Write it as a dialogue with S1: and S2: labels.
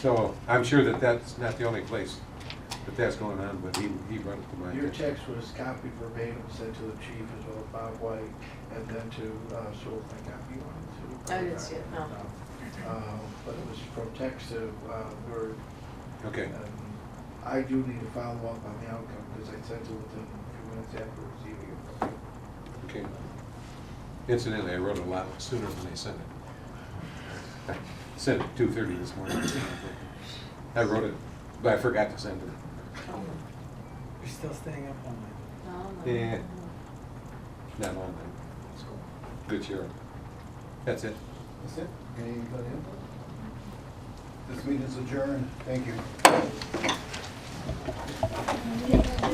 S1: So I'm sure that that's not the only place that that's going on, but he, he brought it to my
S2: Your
S1: attention.
S2: text was copied verbatim, sent to the chief as well as Bob White, and then to uh, Sewell, I got you on it too.
S3: I didn't see it, no.
S2: Uh, But it was from text to uh, Word.
S1: Okay,
S2: and I do need to follow up on the outcome because I sent it within a few minutes after receiving it.
S1: okay. Incidentally, I wrote a lot sooner than they sent it. I Sent it two thirty this morning. I wrote it, but I forgot to send it.
S4: You're still staying up all night.
S1: Yeah. Not on that. Good sheriff. That's it.
S5: That's it? Anybody else? This meeting is adjourned. Thank you.